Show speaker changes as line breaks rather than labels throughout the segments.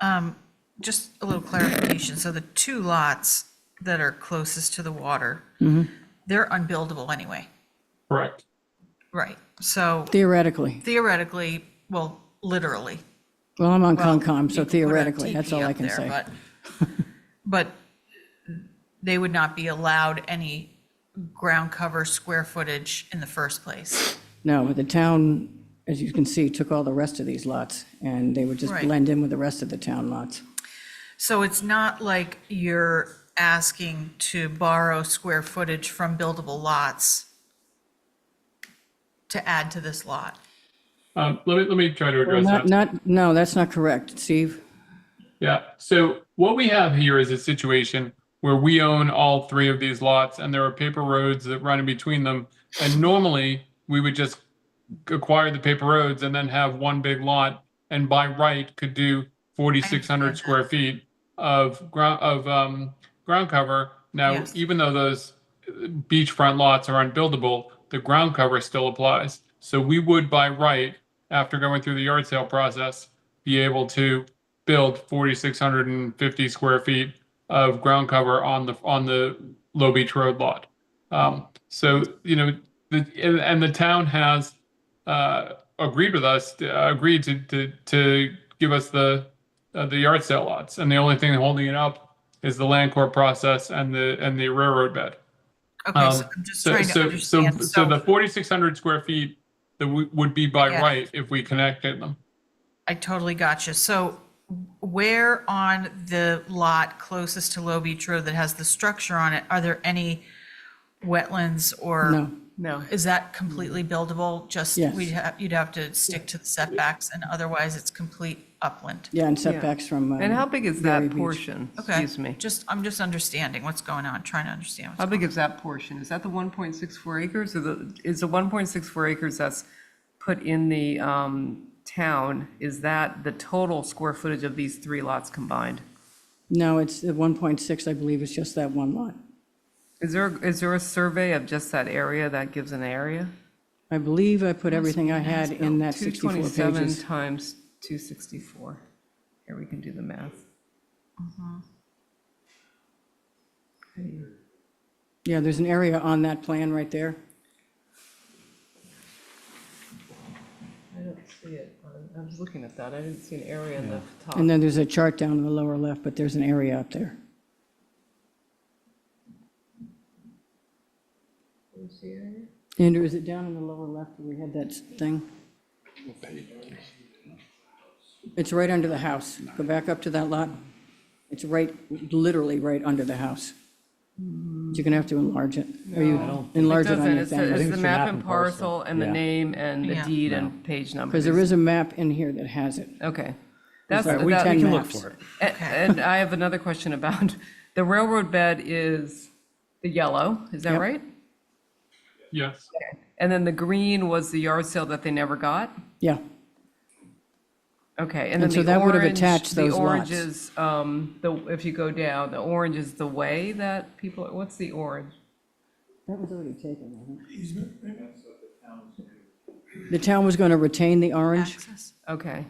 Um, Just a little clarification. So the two lots that are closest to the water,
Mm-hmm.
they're unbuildable anyway,
Correct.
right? So
Theoretically.
theoretically, well, literally.
Well, I'm on
well,
Concom,
you could
so
put a
theoretically, that's
teepee
all I
up
can
there,
say.
but- But they would not be allowed any ground cover square footage in the first place.
No, but the town, as you can see, took all the rest of these lots, and they would just
Right.
blend in with the rest of the town lots.
So it's not like you're asking to borrow square footage from buildable lots to add to this lot.
Um, let me, let me try to address
Not,
that.
not, no, that's not correct, Steve.
Yeah. So what we have here is a situation where we own all three of these lots and there are paper roads that run in between them. And normally we would just acquire the paper roads and then have one big lot and by right could do forty-six hundred square feet of ground, of, um, ground cover. Now,
Yes.
even though those beachfront lots are unbuildable, the ground cover still applies. So we would by right, after going through the yard sale process, be able to build 4,650 square feet of ground cover on the, on the Low Beach Road lot. Um, so, you know, the, and, and the town has, uh, agreed with us, uh, agreed to, to, to give us the, uh, the yard sale lots. And the only thing holding it up is the land court process and the, and the railroad bed.
Okay,
Um,
so I'm just
So,
trying to
so, so,
understand.
so the 4,600 square feet that we- would be by
Yeah.
right if we connected them.
I totally got you. So where on the lot closest to Low Beach Road that has the structure on it, are there any wetlands or?
No.
No. Is that completely buildable? Just,
Yes.
we'd have, you'd have to stick to the setbacks and otherwise it's complete upland.
Yeah, and setbacks from.
And
um,
how big is
Berry
that
Beach.
portion?
Okay.
Excuse me.
Just, I'm just understanding what's going on, trying to understand what's
How big is that portion? Is that the 1.64 acres or the, is the 1.64 acres that's put in the um, town, is that the total square footage of these three lots combined?
No, it's the 1.6, I believe, is just that one lot.
Is there, is there a survey of just that area that gives an area?
I believe I put everything I had in that 64
227
pages.
times 264. Here, we can do the math.
Mm-hmm. Yeah, there's an area on that plan right there.
I don't see it. on- I was looking at that. I didn't see an area in the top.
And then there's a chart down in the lower left, but there's an area up there. Andrew, is it down in the lower left where we had that thing? It's right under the house. Go back up to that lot. It's right, literally right under the house. You're gonna have to enlarge it, or you enlarge it on
doesn't.
your
It's the-
thing.
It's
think
the
it's
map and parcel and the
yeah.
name and the
Yeah.
deed and page number.
Because there is a map in here that has it.
Okay. That's,
Sorry, we
that-
can
a-
look for it.
And I have another question about, the railroad bed is the yellow, is that
Yep.
right?
Yes.
And then the green was the yard sale that they never got?
Yeah,
Okay, and
And
then the
so
orange.
that would have attached
the
those
orange
lots.
is, um, the, if you go down, the orange is the way that people, what's the orange?
That was already taken, I think. The town was going to retain the orange.
access.
Okay.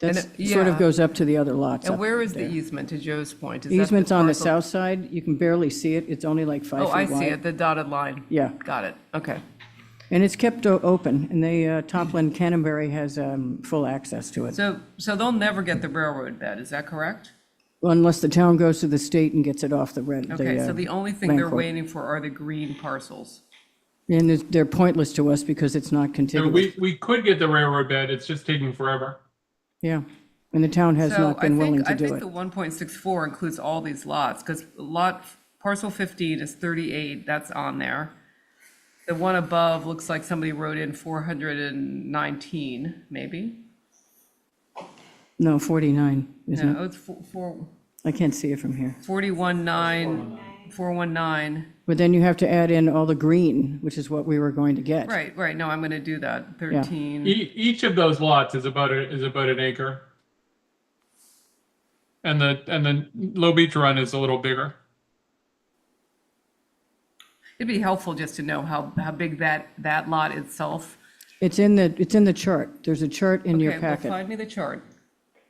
That
And it-
sort of
yeah.
goes up to the other lots.
And
up
where is the
there.
easement, to Joe's point? Is that
Easement's on the
parcel-
south side. You can barely see it. It's only like five feet
Oh, I
wide.
see it, the dotted line.
Yeah.
Got it, okay.
And it's kept o- open, and they, uh, Toplin Canterbury has um, full access to it,
So, so they'll never get the railroad bed, is that correct?
unless the town goes to the state and gets it off the rent. uh,
Okay, so the only thing
land
they're
court.
waiting for are the green parcels.
And it's- they're pointless to us because it's not
So
contiguous.
we, we could get the railroad bed. It's just taking forever.
Yeah, and the town has
So
not
I
been willing
think,
to
I
do
think
it.
the one point six four includes all these lots, because lot, parcel fifteen is thirty-eight, that's on there. The one above looks like somebody wrote in four hundred and nineteen, maybe?
No, 49, isn't it?
No, it's four, four,
I can't see it from here.
forty-one nine, four one nine,
But then you have to add in all the green, which is what we were going to get.
right, right, no, I'm gonna do that, thirteen.
E- each of those lots is about, a- is about an acre. And the, and the Low Beach Run is a little bigger.
It'd be helpful just to know how, how big that, that lot itself.
It's in the, it's in the chart. There's a chart in your
Okay, well,
packet.
find me the chart.